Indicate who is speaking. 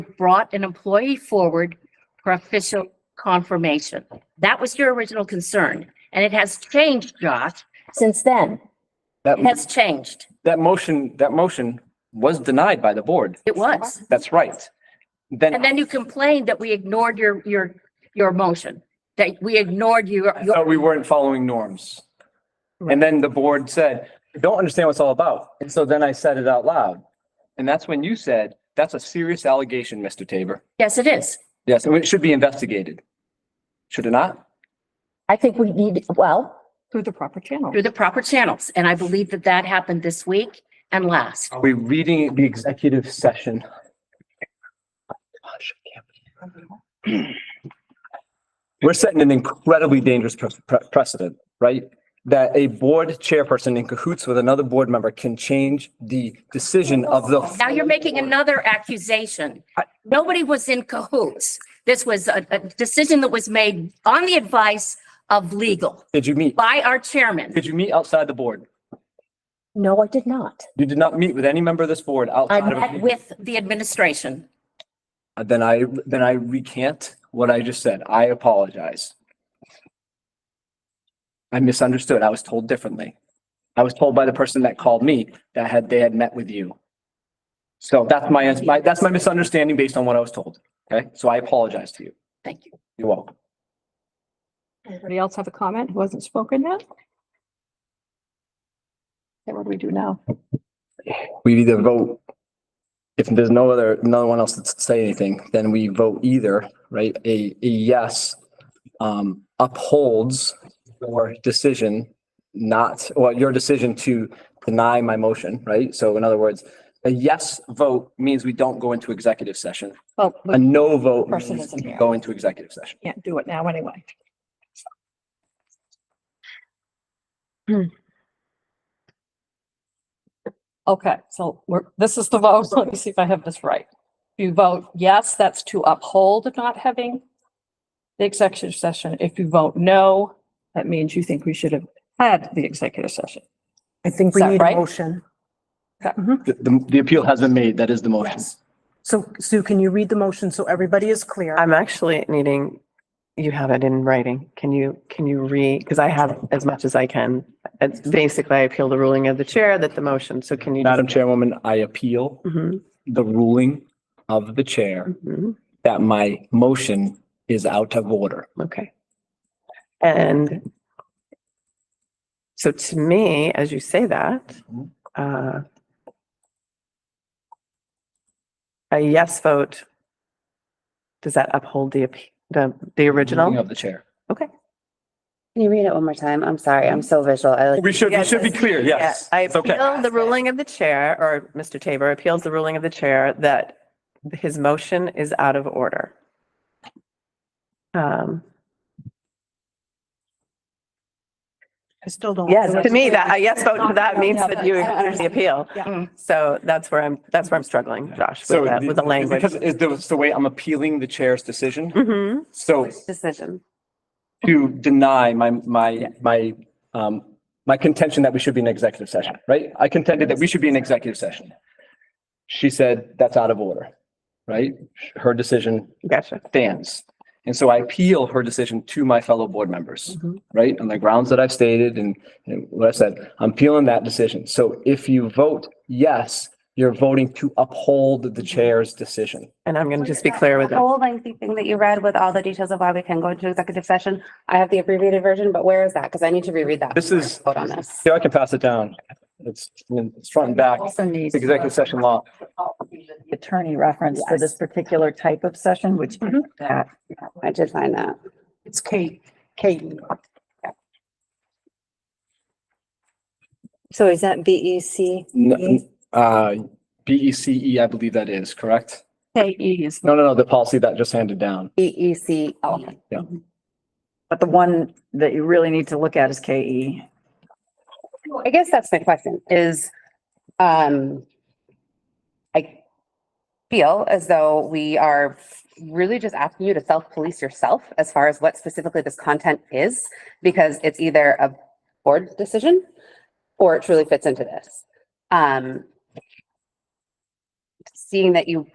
Speaker 1: brought an employee forward for official confirmation. That was your original concern, and it has changed, Josh, since then.
Speaker 2: That,
Speaker 1: It has changed.
Speaker 2: that motion, that motion was denied by the board.
Speaker 1: It was.
Speaker 2: That's right.
Speaker 1: And
Speaker 2: Then
Speaker 1: then you complained that we ignored your, your, your motion, that we ignored your,
Speaker 2: I
Speaker 1: your,
Speaker 2: thought we weren't following norms. And then the board said, "I don't understand what it's all about. And so then I said it out loud. And that's when you said, that's a serious allegation, Mr. Tabor.
Speaker 1: yes, it is.
Speaker 2: Yes, and it should be investigated. Should it not?
Speaker 1: I think we need, well,
Speaker 3: Through the proper channel.
Speaker 1: through the proper channels. And I believe that that happened this week and last.
Speaker 2: Are we reading the executive session? Gosh, I can't believe it. We're setting an incredibly dangerous pre- pre- precedent, right? That a board chairperson in cahoots with another board member can change the decision of the.
Speaker 1: Now you're making another accusation. Nobody was in cahoots. This was a, a decision that was made on the advice of legal
Speaker 2: Did you meet?
Speaker 1: by our chairman.
Speaker 2: Did you meet outside the board?
Speaker 3: No, I did not.
Speaker 2: You did not meet with any member of this board
Speaker 1: I
Speaker 2: outside of. a
Speaker 1: met
Speaker 2: meeting.
Speaker 1: with the administration.
Speaker 2: Uh, Then I, then I recant what I just said. I apologize. I misunderstood. I was told differently. I was told by the person that called me that had, they had met with you. So that's my, my- that's my misunderstanding based on what I was told. Okay? So I apologize to you.
Speaker 1: Thank you.
Speaker 2: You're welcome.
Speaker 3: Anybody else have a comment who hasn't spoken yet? Okay, what do we do now?
Speaker 2: We either vote, if there's no other, no one else that's say anything, then we vote either, right? A, a yes um, upholds your decision not, well, your decision to deny my motion, right? So in other words, a yes vote means we don't go into executive session.
Speaker 3: Well,
Speaker 2: A
Speaker 3: we
Speaker 2: no vote
Speaker 3: Person
Speaker 2: means
Speaker 3: isn't
Speaker 2: we
Speaker 3: here.
Speaker 2: go into executive session.
Speaker 3: can't do it now anyway. Okay, so we're, this is the vote. Let me see if I have this right. If you vote yes, that's to uphold not having the executive session. If you vote no, that means you think we should have had the executive session.
Speaker 4: I think we
Speaker 3: Is that
Speaker 4: need a
Speaker 3: right?
Speaker 4: motion.
Speaker 2: The, the- the appeal has been made. That is the motion.
Speaker 4: So Sue, can you read the motion so everybody is clear?
Speaker 5: I'm actually needing, you have it in writing. Can you, can you re, because I have as much as I can. It's basically, I appeal the ruling of the chair that the motion, so can you? just-
Speaker 2: Madam Chairwoman, I appeal
Speaker 5: Mhm,
Speaker 2: the ruling of the chair
Speaker 5: mhm,
Speaker 2: that my motion is out of order.
Speaker 5: Okay. And so to me, as you say that,
Speaker 2: Mhm.
Speaker 5: uh, a yes vote, does that uphold the, appe- the, the
Speaker 2: Ruling
Speaker 5: original?
Speaker 2: Of the chair.
Speaker 6: Can you read it one more time? I'm sorry, I'm so visual. I like,
Speaker 2: We should, we
Speaker 5: Yes,
Speaker 2: should be
Speaker 5: yes,
Speaker 2: clear, yes.
Speaker 5: I
Speaker 2: It's okay.
Speaker 5: appeal the ruling of the chair, or Mr. Tabor appeals the ruling of the chair that his motion is out of order. Um,
Speaker 4: I still don't.
Speaker 5: yes, to me, that, a yes vote to that means that you acknowledge the appeal.
Speaker 1: Yeah.
Speaker 5: So that's where I'm, that's where I'm struggling, Josh,
Speaker 2: So
Speaker 5: with that, with the
Speaker 2: it's
Speaker 5: language.
Speaker 2: Because it's the, it's the way I'm appealing the chair's decision.
Speaker 5: Mhm.
Speaker 2: So
Speaker 6: decision.
Speaker 2: to deny my, my, my, um, my contention that we should be in executive session, right? I contended that we should be in executive session. She said that's out of order, right? Her decision
Speaker 5: Gotcha.
Speaker 2: stands. And so I appeal her decision to my fellow board members, right? On the grounds that I've stated and, and what I said, I'm appealing that decision. So if you vote yes, you're voting to uphold the chair's decision.
Speaker 5: And I'm going to just be clear with
Speaker 6: The
Speaker 5: it.
Speaker 6: whole lengthy thing that you read with all the details of why we can go into executive session. I have the abbreviated version, but where is that? Because I need to reread that.
Speaker 2: This is-
Speaker 6: Vote on this.
Speaker 2: Yeah, I can pass it down. It's, it's front and back,
Speaker 3: Also
Speaker 2: It's
Speaker 3: needs.
Speaker 2: executive session law.
Speaker 3: attorney reference for this particular type of session, which that
Speaker 6: I did find that.
Speaker 4: It's Kate. Kate.
Speaker 7: So is that B E C?
Speaker 2: N- Uh, B E C E, I believe that is, correct?
Speaker 3: K E is,
Speaker 2: No, no, no, the policy that just handed down.
Speaker 6: E E C.
Speaker 8: But the one that you really need to look at is E. KE.
Speaker 6: I guess that's my question is, um, I feel as though we are really just asking you to self-police yourself as far as what specifically this content is, because it's either a board decision or it truly fits into this. Um, seeing that you